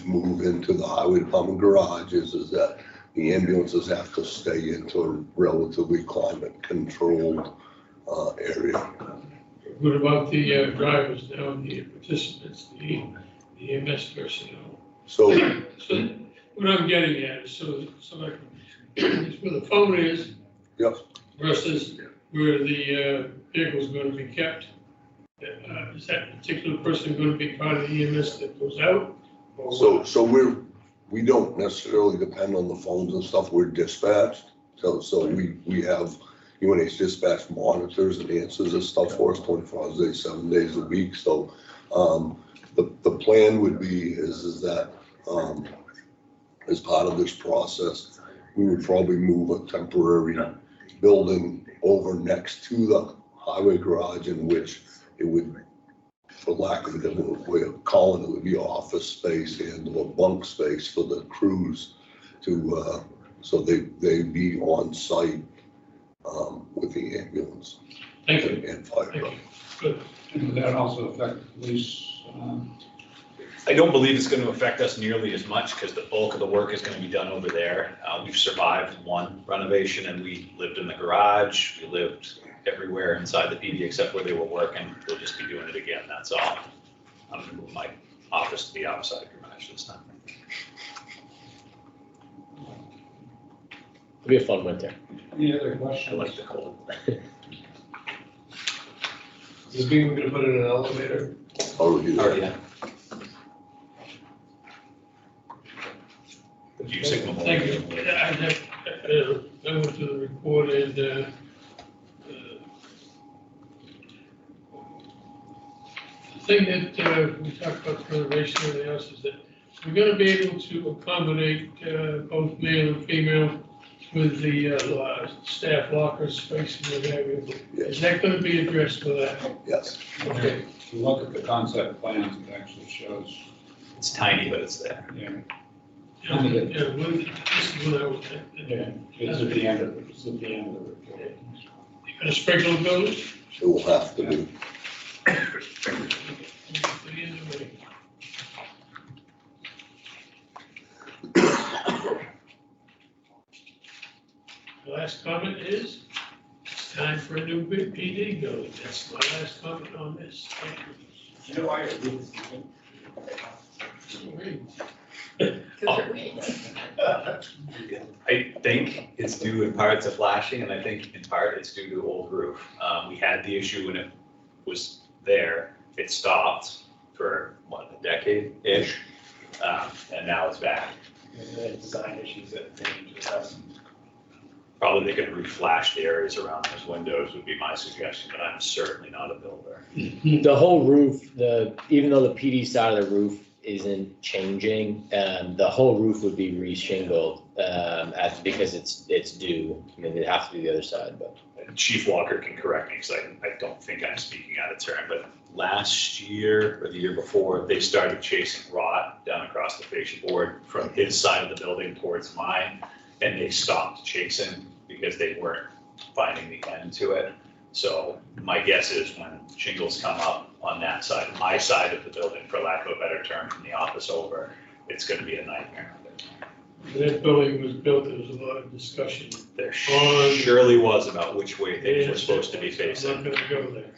ambulance move into the highway department garages is that the ambulances have to stay into a relatively climate controlled uh, area. What about the uh, drivers now, the participants, the the EMS personnel? So So what I'm getting at is so, so I can, is where the phone is. Yep. Versus where the uh, vehicle's gonna be kept. Uh, Is that particular person gonna be part of the EMS that goes out? or So, what? so we're, we don't necessarily depend on the phones and stuff, we're dispatched. So, so we, we have UNH dispatch monitors and answers and stuff for us twenty-four hours a day, seven days a week. So, um, the, the plan would be is, is that, um, as part of this process, we would probably move a temporary building over next to the highway garage in which it would for lack of a different way of calling it, would be office space and or bunk space for the crews to, uh, so they, they be on site, um, with the ambulance Thank you, and and fire thank truck. you. Good. And would that also affect the police? um, I don't believe it's gonna affect us nearly as much, because the bulk of the work is gonna be done over there. Uh, we've survived one renovation, and we lived in the garage, we lived everywhere inside the PD except where they were working, we'll just be doing it again, that's all. I'm gonna move my office to the outside garage this time. It'll be a fun winter. Any other I like questions? the cold. Does this mean we're gonna put in an elevator? Already Oh, there. yeah. You signal. Thank you. I, I, I went to the report and, uh, uh, the thing that, uh, we talked about conservation and everything else is that we're gonna be able to accommodate, uh, both male and female with the, uh, lo- staff locker spaces and everything. Is that gonna be addressed with that? Yes, Okay. If you look at the concept plans, it actually shows, It's tiny, but it's there. you know, Yeah, yeah, well, this is what I was, uh, yeah, it's at the end of, it's at the end of the report. you gonna sprinkle those? it will have to be. The Last comment is, it's time for a new big PD go. That's my last comment on this. Thank You know, I agree with you. you. I think it's due in part to flashing, and I think in part it's due to old roof. Um, we had the issue when it was there, it stopped for, what, a decade-ish? Um, and now it's back. Design issues that they just have. Probably they could re-flash the areas around those windows would be my suggestion, but I'm certainly not a builder. The whole roof, the, even though the PD side of the roof isn't changing, um, the whole roof would be reshingled. Um, as, because it's, it's due, I mean, it'd have to be the other side, but. Chief Walker can correct me, because I, I don't think I'm speaking out of turn, but last year or the year before, they started chasing rot down across the fascia board from his side of the building towards mine, and they stopped chasing because they weren't finding the end to it. So my guess is when shingles come up on that side, my side of the building, for lack of a better term, from the office over, it's gonna be a nightmare. That building was built, there was a lot of discussion. There surely was about which way things were supposed to be facing. I'm not gonna go there.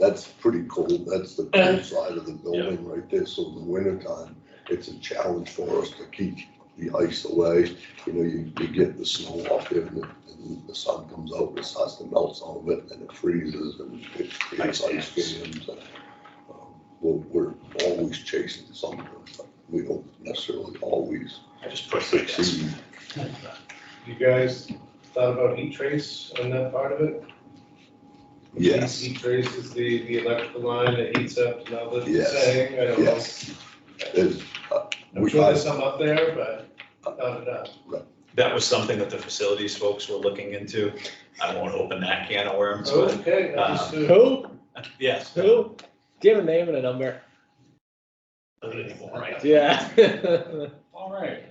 That's pretty cold, that's the cold side of the building right there, so in the wintertime, it's a challenge for us to keep the ice away. You know, you, you get the snow off there and the, and the sun comes out, and it starts to melt some of it, and it freezes and it creates ice Ice dams. and, um, We're, we're always chasing something, but we don't necessarily always I just pushed my desk. succeed. You guys thought about heat trace on that part of it? Yes. Heat trace is the, the electrical line that heats up to now that Yes. saying, I don't know. Yes. It's, uh, I'm we- sure there's some up there, but not enough. That was something that the facilities folks were looking into. I won't open that can of worms, but Okay, Uh, understood. Who? yes. Who? Do you have a name and a number? Not anymore, right? Yeah. All right.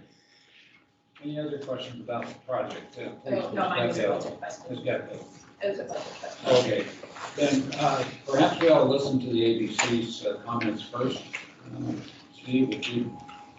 Any other questions about the project? Yeah, please, No, no, mine was a Ms. budget Ms. question. Beckwith. It was a budget question. Okay, then uh, perhaps we ought to listen to the ABC's uh, comments first. Uh, Steve, would you